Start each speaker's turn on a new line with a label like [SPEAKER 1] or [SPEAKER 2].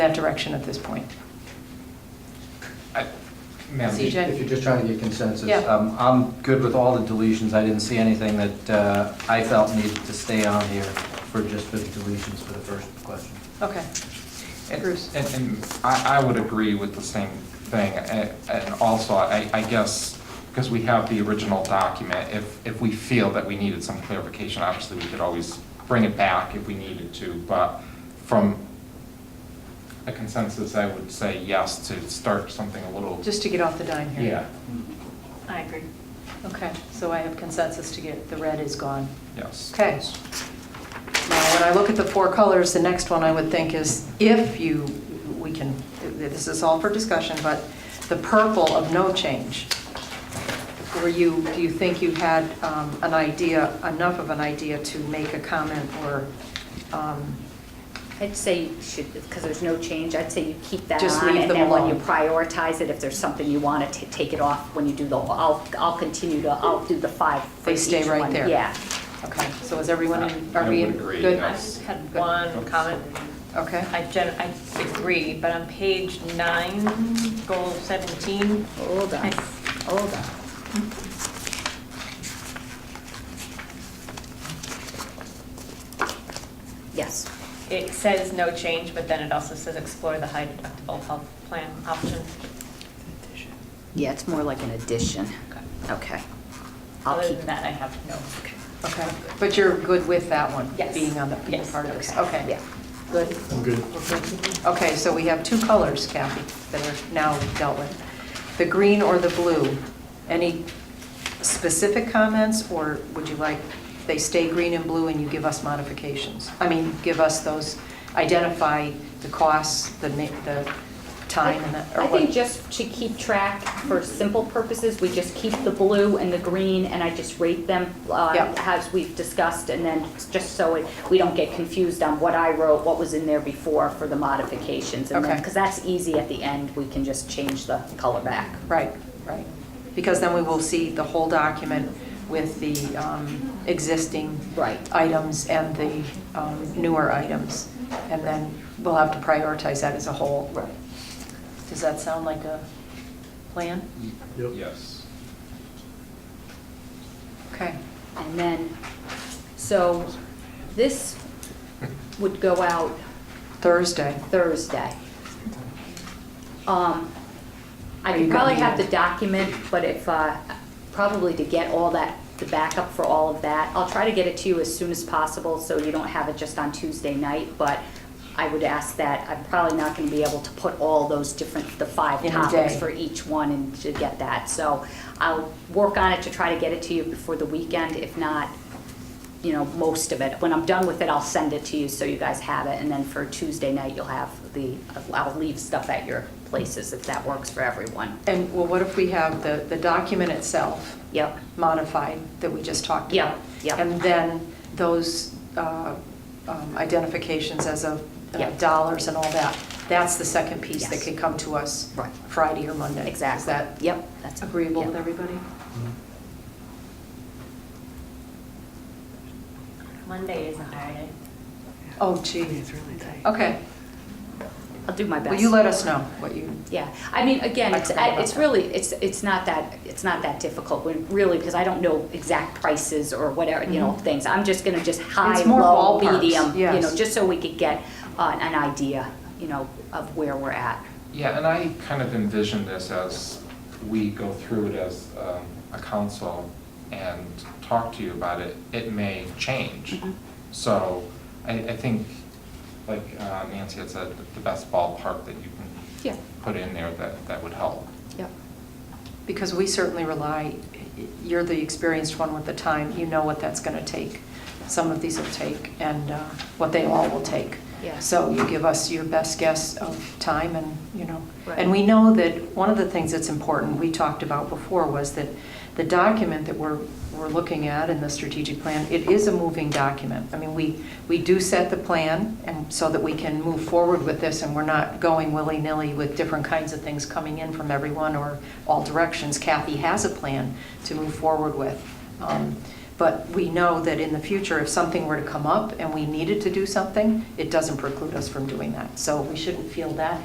[SPEAKER 1] that direction at this point.
[SPEAKER 2] I- Ma'am,
[SPEAKER 1] CJ?
[SPEAKER 2] if you're just trying to get consensus.
[SPEAKER 1] Yeah.
[SPEAKER 2] um, I'm good with all the deletions. I didn't see anything that uh, I felt needed to stay on here for just for the deletions for the first question.
[SPEAKER 1] Okay.
[SPEAKER 3] And-
[SPEAKER 1] Bruce.
[SPEAKER 3] And, and I, I would agree with the same thing, A- and also, I, I guess, because we have the original document, if, if we feel that we needed some clarification, obviously, we could always bring it back if we needed to, but from a consensus, I would say yes to start something a little,
[SPEAKER 1] Just to get off the dime here.
[SPEAKER 3] yeah,
[SPEAKER 4] I agree.
[SPEAKER 1] Okay, so I have consensus to get, the red is gone.
[SPEAKER 3] yes.
[SPEAKER 1] Okay. Now, when I look at the four colors, the next one I would think is if you, we can, this is all for discussion, but the purple of no change. Were you, do you think you had um, an idea, enough of an idea to make a comment or um,
[SPEAKER 4] I'd say you should, because there's no change, I'd say you keep that on.
[SPEAKER 1] Just leave them
[SPEAKER 4] And then when you
[SPEAKER 1] alone.
[SPEAKER 4] prioritize it, if there's something you want to take it off, when you do the, I'll, I'll continue to, I'll do the five for
[SPEAKER 1] They stay
[SPEAKER 4] each
[SPEAKER 1] right
[SPEAKER 4] one.
[SPEAKER 1] there.
[SPEAKER 4] Yeah.
[SPEAKER 1] Okay, so is everyone, in-
[SPEAKER 3] I
[SPEAKER 1] are we
[SPEAKER 3] would
[SPEAKER 1] in
[SPEAKER 3] agree,
[SPEAKER 1] good?
[SPEAKER 5] I
[SPEAKER 3] yes.
[SPEAKER 5] just had one comment.
[SPEAKER 1] Okay,
[SPEAKER 5] I gen, I agree, but on page nine, goal 17,
[SPEAKER 4] Hold on,
[SPEAKER 5] Nice.
[SPEAKER 4] hold on. Yes.
[SPEAKER 5] it says no change, but then it also says explore the high deductible health plan option.
[SPEAKER 4] Yeah, it's more like an addition. Okay. I'll
[SPEAKER 5] Other
[SPEAKER 4] keep
[SPEAKER 5] than that, I have no.
[SPEAKER 1] okay. But you're good with that one?
[SPEAKER 5] Yes.
[SPEAKER 1] Being on the, being
[SPEAKER 5] Yes.
[SPEAKER 1] part of this? Okay.
[SPEAKER 4] Yeah.
[SPEAKER 1] Good? I'm good. Okay, so we have two colors, Kathy, that are now dealt with. The green or the blue. Any specific comments, or would you like, they stay green and blue and you give us modifications? I mean, give us those, identify the costs, the, ma- the time and that, or
[SPEAKER 4] I
[SPEAKER 1] what?
[SPEAKER 4] think just to keep track, for simple purposes, we just keep the blue and the green, and I just rate them uh,
[SPEAKER 1] Yep.
[SPEAKER 4] as we've discussed, and then just so it- we don't get confused on what I wrote, what was in there before for the modifications. and
[SPEAKER 1] Okay.
[SPEAKER 4] Because that's easy at the end, we can just change the color back.
[SPEAKER 1] Right, right. Because then we will see the whole document with the um, existing
[SPEAKER 4] Right.
[SPEAKER 1] items and the um, newer items. And then we'll have to prioritize that as a whole. Right. Does that sound like a plan?
[SPEAKER 4] Mm-hmm.
[SPEAKER 3] Yes.
[SPEAKER 1] Okay.
[SPEAKER 4] And then, so this would go out
[SPEAKER 1] Thursday.
[SPEAKER 4] Thursday. Um, I
[SPEAKER 1] Are you
[SPEAKER 4] could probably
[SPEAKER 1] gonna
[SPEAKER 4] have the document, but if, uh, probably to get all that, the backup for all of that, I'll try to get it to you as soon as possible, so you don't have it just on Tuesday night, but I would ask that, I'm probably not gonna be able to put all those different, the five
[SPEAKER 1] In a
[SPEAKER 4] topics
[SPEAKER 1] day.
[SPEAKER 4] for each one and to get that, so I'll work on it to try to get it to you before the weekend, if not, you know, most of it. When I'm done with it, I'll send it to you so you guys have it, and then for Tuesday night, you'll have the, I'll leave stuff at your places if that works for everyone.
[SPEAKER 1] And, well, what if we have the, the document itself
[SPEAKER 4] Yep,
[SPEAKER 1] modified that we just talked
[SPEAKER 4] Yeah,
[SPEAKER 1] about?
[SPEAKER 4] yeah.
[SPEAKER 1] And then those uh, um, identifications as of uh,
[SPEAKER 4] Yeah.
[SPEAKER 1] dollars and all that, that's the second piece that
[SPEAKER 4] Yes.
[SPEAKER 1] could come to us
[SPEAKER 4] Right.
[SPEAKER 1] Friday or Monday. Is
[SPEAKER 4] exactly.
[SPEAKER 1] that
[SPEAKER 4] Yep. that's-
[SPEAKER 1] agreeable with
[SPEAKER 4] yep.
[SPEAKER 1] everybody?
[SPEAKER 5] Monday is a holiday.
[SPEAKER 1] Oh, gee. Okay.
[SPEAKER 4] I'll do my best.
[SPEAKER 1] Will you let us know what you,
[SPEAKER 4] Yeah, I mean, again,
[SPEAKER 1] I
[SPEAKER 4] it's,
[SPEAKER 1] forgot
[SPEAKER 4] I-
[SPEAKER 1] about
[SPEAKER 4] it's
[SPEAKER 1] that.
[SPEAKER 4] really, it's, it's not that, it's not that difficult, when- really, because I don't know exact prices or whatever, you know,
[SPEAKER 1] Mhm.
[SPEAKER 4] things. I'm just gonna just high,
[SPEAKER 1] It's more
[SPEAKER 4] low,
[SPEAKER 1] ballparks,
[SPEAKER 4] medium, you know,
[SPEAKER 1] yes.
[SPEAKER 4] just so we could get uh, an idea, you know, of where we're at.
[SPEAKER 3] Yeah, and I kind of envision this as we go through it as um, a council and talk to you about it, it may change.
[SPEAKER 4] Mhm.
[SPEAKER 3] So I, I think, like uh, Nancy had said, the best ballpark that you can
[SPEAKER 4] Yeah,
[SPEAKER 3] put in there, that, that would help.
[SPEAKER 4] yep.
[SPEAKER 1] because we certainly rely, you're the experienced one with the time, you know what that's going to take. Some of these will take, and uh, what they all will take.
[SPEAKER 4] Yeah.
[SPEAKER 1] So you give us your best guess of time and, you know.
[SPEAKER 4] Right.
[SPEAKER 1] And we know that, one of the things that's important, we talked about before, was that the document that we're, we're looking at in the strategic plan, it is a moving document. I mean, we, we do set the plan and so that we can move forward with this and we're not going willy-nilly with different kinds of things coming in from everyone or all directions. Kathy has a plan to move forward with. Um, But we know that in the future, if something were to come up and we needed to do something, it doesn't preclude us from doing that. So we shouldn't feel that